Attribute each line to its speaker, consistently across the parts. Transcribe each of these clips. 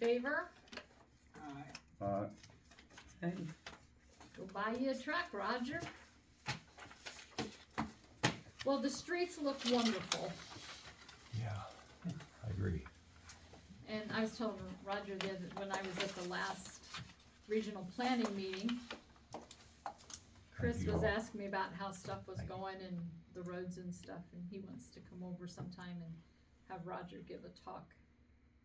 Speaker 1: favor?
Speaker 2: Aye.
Speaker 1: Go buy you a truck, Roger. Well, the streets look wonderful,
Speaker 3: Yeah, I agree.
Speaker 1: and I was telling Roger the other, when I was at the last regional planning meeting, Chris
Speaker 3: Thank you
Speaker 1: was
Speaker 3: all.
Speaker 1: asking me about how stuff was
Speaker 3: Thank you.
Speaker 1: going and the roads and stuff, and he wants to come over sometime and have Roger give a talk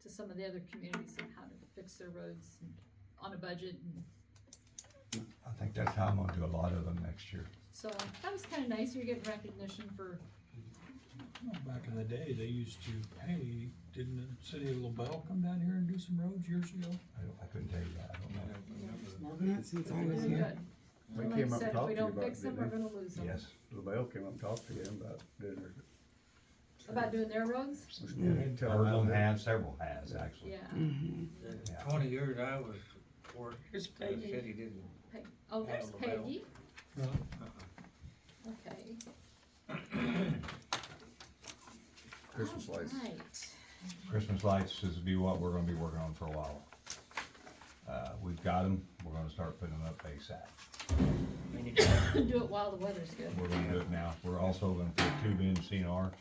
Speaker 1: to some of the other communities on how to fix their roads and on a budget, and
Speaker 3: I think that's how I'm gonna do a lot of them next year.
Speaker 1: so that was kinda nice, you're getting recognition for,
Speaker 4: Well, Back in the day, they used to, hey, didn't the city of LaBelle come down here and do some roads years ago?
Speaker 3: I don't, I couldn't tell you that, I don't know.
Speaker 5: Not since I was
Speaker 1: doing
Speaker 5: here.
Speaker 1: good.
Speaker 2: They
Speaker 1: Like
Speaker 2: came
Speaker 1: I said,
Speaker 2: up and
Speaker 1: if
Speaker 2: talked
Speaker 1: we
Speaker 2: to you
Speaker 1: don't
Speaker 2: about it,
Speaker 1: fix them,
Speaker 2: didn't
Speaker 1: we're
Speaker 2: they?
Speaker 1: gonna lose them.
Speaker 3: Yes,
Speaker 2: LaBelle came up and talked to them about dinner.
Speaker 1: About doing their roads?
Speaker 2: You tell
Speaker 3: one of them
Speaker 2: them,
Speaker 3: has, several has, actually.
Speaker 1: Yeah,
Speaker 2: Mm.
Speaker 6: In
Speaker 3: Yeah.
Speaker 6: Twenty years I was working,
Speaker 7: It's
Speaker 6: the
Speaker 7: Peggy.
Speaker 6: city didn't,
Speaker 1: Peg, oh, there's
Speaker 6: Yeah, LaBelle.
Speaker 1: Peggy,
Speaker 4: Well,
Speaker 1: okay.
Speaker 2: Uh-uh. Christmas lights.
Speaker 1: Alright.
Speaker 3: Christmas lights is be what we're gonna be working on for a while. Uh, we've got them, we're gonna start putting them up ASAP.
Speaker 1: Do it while the weather's good.
Speaker 3: We're gonna do it now. We're also gonna put tube in CNR.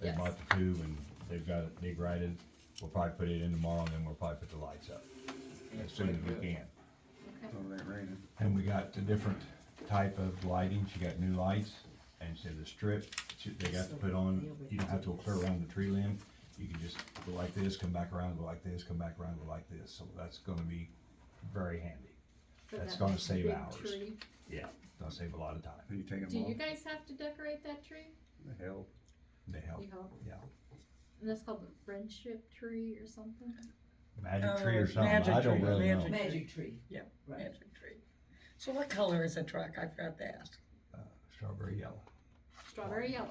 Speaker 3: They
Speaker 1: Yes.
Speaker 3: bought the tube and they've got it dig righted. We'll probably put it in tomorrow and then we'll probably put the lights up as soon as we
Speaker 1: Okay,
Speaker 3: can.
Speaker 2: Oh, it ain't raining.
Speaker 3: And we got the different type of lighting, she got new lights, and so the strip, she- they got to put on, you don't have to go clear around the tree limb. You can just go like this, come back around, go like this, come back around, go like this, so that's gonna be very handy.
Speaker 1: for
Speaker 3: That's
Speaker 1: that
Speaker 3: gonna save
Speaker 1: big
Speaker 3: hours.
Speaker 1: tree.
Speaker 3: Yeah. Gonna save a lot of time,
Speaker 2: Are you taking
Speaker 1: Do
Speaker 2: them
Speaker 1: you
Speaker 2: off?
Speaker 1: guys have to decorate that tree?
Speaker 2: The hell?
Speaker 3: they help,
Speaker 1: You hope.
Speaker 3: yeah.
Speaker 7: Uh,
Speaker 1: And that's called the friendship tree or something?
Speaker 3: Magic tree or
Speaker 7: Oh,
Speaker 3: something, I
Speaker 7: magic
Speaker 3: don't
Speaker 7: tree,
Speaker 3: really know.
Speaker 7: magic
Speaker 5: Magic tree.
Speaker 7: Yeah,
Speaker 5: Right.
Speaker 7: magic tree. So what color is the truck? I forgot to ask.
Speaker 3: Uh, Strawberry yellow.
Speaker 1: Strawberry yellow.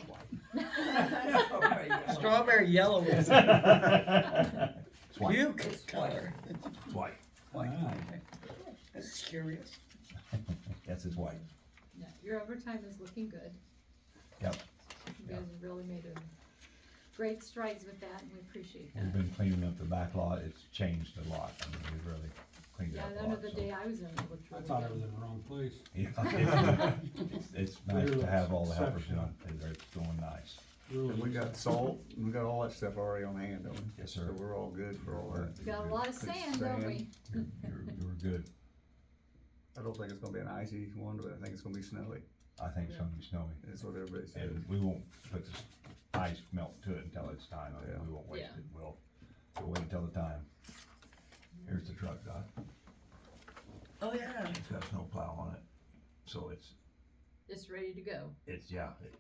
Speaker 6: Oh,
Speaker 7: Strawberry yellow is a
Speaker 3: It's white,
Speaker 7: puke color.
Speaker 3: it's white,
Speaker 4: wow.
Speaker 7: I was curious.
Speaker 3: that's his white.
Speaker 1: No, your overtime is looking good.
Speaker 3: Yep.
Speaker 1: You guys have really made a great strides with that, and we appreciate
Speaker 3: We've
Speaker 1: that.
Speaker 3: been cleaning up the back lot, it's changed a lot, I mean, we've really cleaned it
Speaker 1: Yeah,
Speaker 3: up
Speaker 1: that
Speaker 3: a lot.
Speaker 1: other
Speaker 3: so-
Speaker 1: day I was in, it looked
Speaker 4: I
Speaker 1: really
Speaker 4: thought I was
Speaker 1: good.
Speaker 4: in the wrong place.
Speaker 3: Yeah. It's- It's nice to have all the helpers
Speaker 4: Exceptional.
Speaker 3: done, they're doing nice.
Speaker 2: And we
Speaker 4: Really,
Speaker 2: got salt, and we got all that stuff already on hand, don't we?
Speaker 3: Yes, sir.
Speaker 2: So we're all good for all that.
Speaker 1: We Got a lot of sand, don't we?
Speaker 3: You're, you're- you're good,
Speaker 2: I don't think it's gonna be an icy one, but I think it's gonna be snowy.
Speaker 3: I think it's gonna be snowy,
Speaker 2: That's what everybody said.
Speaker 3: and we won't put this ice melt to it until it's time, I mean, we won't waste
Speaker 1: Yeah.
Speaker 3: it, we'll, we'll wait until the time. Here's the truck, Doc,
Speaker 7: Oh, yeah.
Speaker 3: it's got snow plow on it, so it's,
Speaker 1: It's ready to go.
Speaker 3: it's, yeah, it's,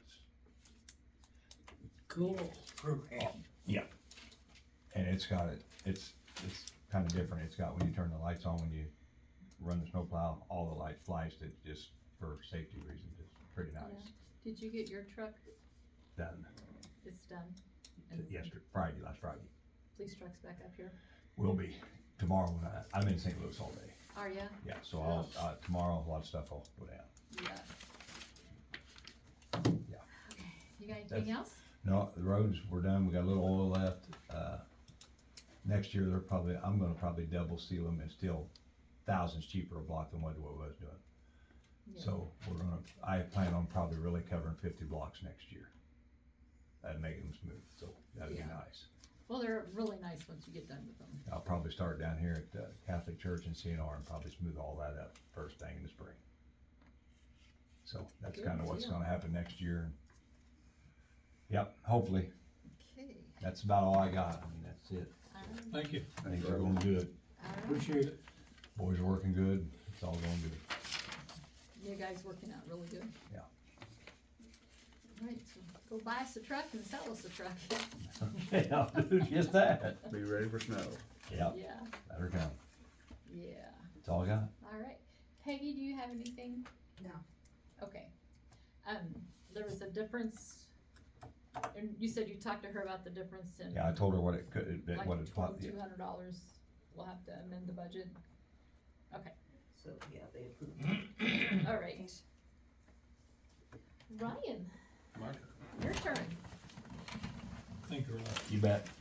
Speaker 7: Cool.
Speaker 6: program.
Speaker 3: and it's got it, it's, it's kinda different, it's got, when you turn the lights on, when you run the snow plow, all the light flashed, it's just for safety reasons, it's pretty nice.
Speaker 1: Did you get your truck?
Speaker 3: Done
Speaker 1: It's done.
Speaker 3: t- yesterday, Friday, last Friday,
Speaker 1: Police truck's back up here.
Speaker 3: will be tomorrow when I, I'm in St. Louis all day,
Speaker 1: Are ya?
Speaker 3: yeah, so I'll, uh, tomorrow, a lot of stuff will go down.
Speaker 1: Yeah.
Speaker 3: Yeah.
Speaker 1: Okay, you got anything else?
Speaker 3: No, the roads, we're done, we got a little oil left, uh, next year, they're probably, I'm gonna probably double seal them and still thousands cheaper a block than what it was doing.
Speaker 1: Yeah.
Speaker 3: So we're gonna, I plan on probably really covering fifty blocks next year. And making them smooth, so that'd be
Speaker 1: Yeah.
Speaker 3: nice.
Speaker 1: Well, they're really nice once you get done with them.
Speaker 3: I'll probably start down here at the Catholic Church in CNR and probably smooth all that up first thing in the spring. So that's
Speaker 1: Good
Speaker 3: kinda what's
Speaker 1: deal.
Speaker 3: gonna happen next year. Yep, hopefully,
Speaker 1: Okay.
Speaker 3: that's about all I got, I mean, that's it,
Speaker 4: thank you,
Speaker 3: things are going good,
Speaker 4: appreciate it.
Speaker 3: boys are working good, it's all going good.
Speaker 1: You guys working out really good.
Speaker 3: Yeah.
Speaker 1: Alright, so go buy us a truck and sell us a truck.
Speaker 3: Okay, I'll do just that.
Speaker 2: Be ready for snow.
Speaker 3: Yep,
Speaker 1: Yeah,
Speaker 3: let her come,
Speaker 1: yeah.
Speaker 3: that's all I got.
Speaker 1: Alright. Peggy, do you have anything?
Speaker 5: No.
Speaker 1: Okay. Um, there was a difference, and you said you talked to her about the difference in.
Speaker 3: Yeah, I told her what it could, that what it, what- yeah.
Speaker 1: Two hundred dollars. We'll have to amend the budget. Okay.
Speaker 5: So, yeah, they approved.
Speaker 1: All right. Ryan,
Speaker 6: My
Speaker 1: your turn.
Speaker 4: Thank you, Rob.
Speaker 3: you bet.